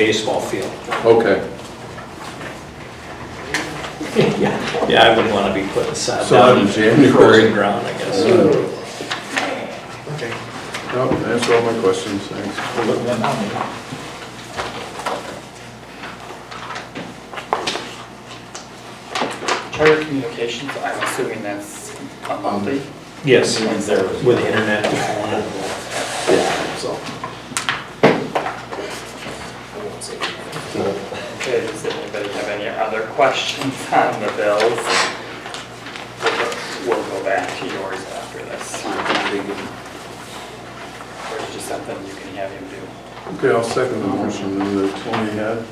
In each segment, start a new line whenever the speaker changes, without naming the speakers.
baseball field.
Okay,
Yeah, yeah, I wouldn't want to be putting sod
So
down
in
in
January.
frozen ground, I guess.
no, that's all my questions, thanks.
Charter communications, I'm assuming that's a monthly.
Yes,
Is there-
with the internet. and phone and-
Yeah, so.
Okay, does anybody have any other questions on the bills? We'll go back to yours after this. There's just something you can have him do.
Okay, I'll second the motion that Tony had.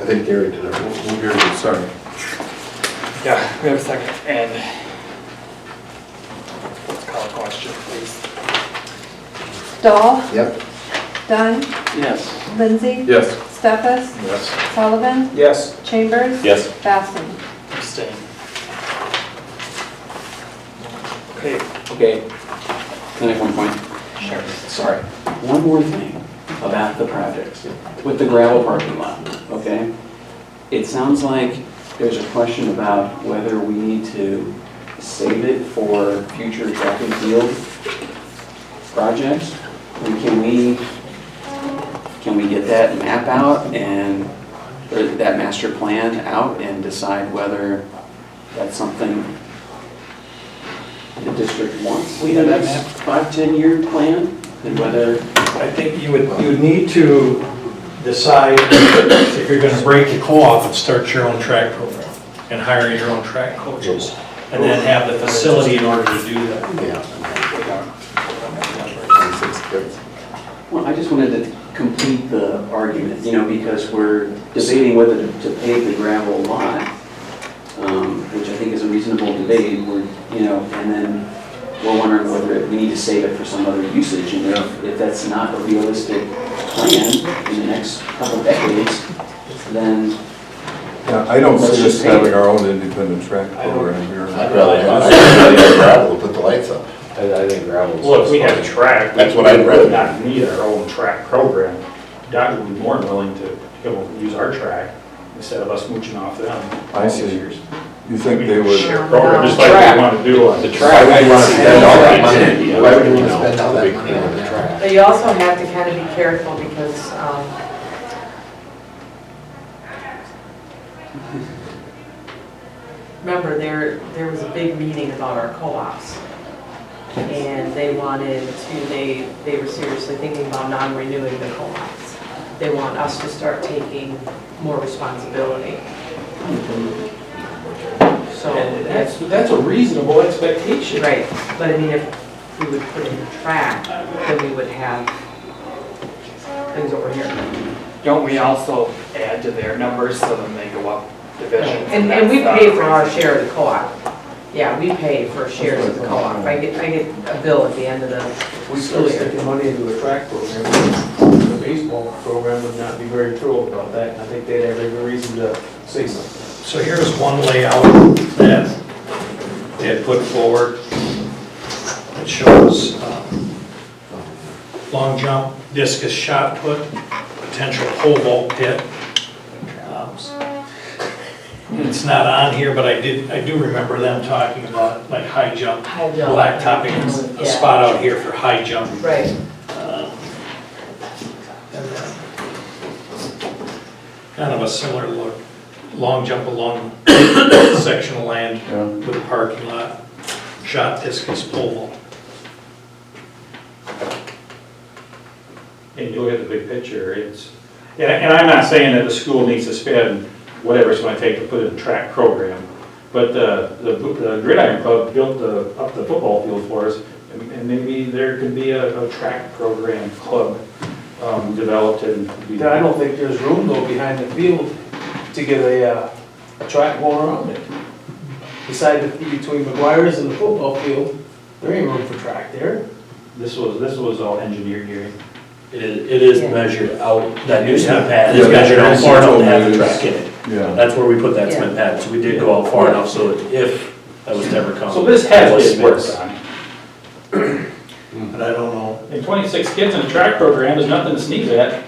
I think Gary did it.
We'll we'll hear it, sorry.
Yeah, we have a second, and let's call a question, please.
Dahl,
Yep.
Dunn,
Yes.
Lindsay.
Yes.
Stefas,
Yes.
Sullivan,
Yes.
Chambers.
Yes.
Basson.
Abstain. Okay,
Okay, can I have one point?
sure.
Sorry. One more thing about the projects with the gravel parking lot, okay? It sounds like there's a question about whether we need to save it for future track and field projects. And Can we, can we get that map out and, or that master plan out and decide whether that's something the district wants?
We have that
That's
map.
Five, 10-year plan and whether
I think you would, you would need to decide if you're gonna break the co-op and start your own track program and hire your own track coaches and then have the facility in order to do that.
Yeah.
We don't-
Well, I just wanted to complete the argument, you know, because we're debating whether to- to pave the gravel lot, um, which I think is a reasonable debate, we're, you know, and then we're wondering whether it- we need to save it for some other usage, and if, if that's not a realistic plan in the next couple decades, then
Yeah, I don't
Let's
see us
just paint.
having our own independent track program here.
I'd rather, I'd rather gravel, put the lights up.
I, I think gravel's.
Well, if we had a track. we
That's what I'd rather-
would Not need our own track program. Doc would be more than willing to, you know, use our track instead of us mooching off them.
I see.
Years.
Oh,
You think they would,
Share program, just like we want to do on.
The track, why would you want to spend all that money?
Why would you want to spend all that money on the track?
But you also have to kind of be careful because um, remember, there, there was a big meeting about our co-ops. And they wanted to, they, they were seriously thinking about non-renewing the co-ops. They want us to start taking more responsibility. So that's,
that's a reasonable expectation.
right, but I mean, if we would put in the track, then we would have things over here.
Don't we also add to their numbers so then they go up divisions?
And, and we
that's
pay
not-
for our share of the co-op. Yeah, we pay for shares of the co-op. I get, I get a bill at the end of the
We still
school year.
sticking money into a track program. The baseball program would not be very thrilled about that, and I think they'd have every reason to say something.
So here's one layout that they had put forward that shows um, long jump, discus shot put, potential pole vault pit. Um, It's not on here, but I did, I do remember them talking about like high jump,
High jump.
blacktopping, a spot out here for high jump.
Right.
Um, and then Kind of a similar look, long jump along section of land with a parking lot, shot discus pole vault.
And you look at the big picture, it's, and, and I'm not saying that the school needs to spend whatever it's gonna take to put in a track program, but the, the the Gridiron Club built the, up the football field for us, and and maybe there could be a, a track program club, um, developed and. be-
I don't think there's room though behind the field to get a, uh, a track going around it. Beside the, between McGuire's and the football field, there ain't room for track there.
This was, this was all engineered here.
It is, it is measured out, that new cement pad
is measured out far enough
to
to have the track in
it.
yeah.
That's where we put that
cement
pad, so we
did
go out far enough so that if that was to ever
So this has been worked on.
But I don't know.
And 26 kids in a track program is nothing to sneeze at.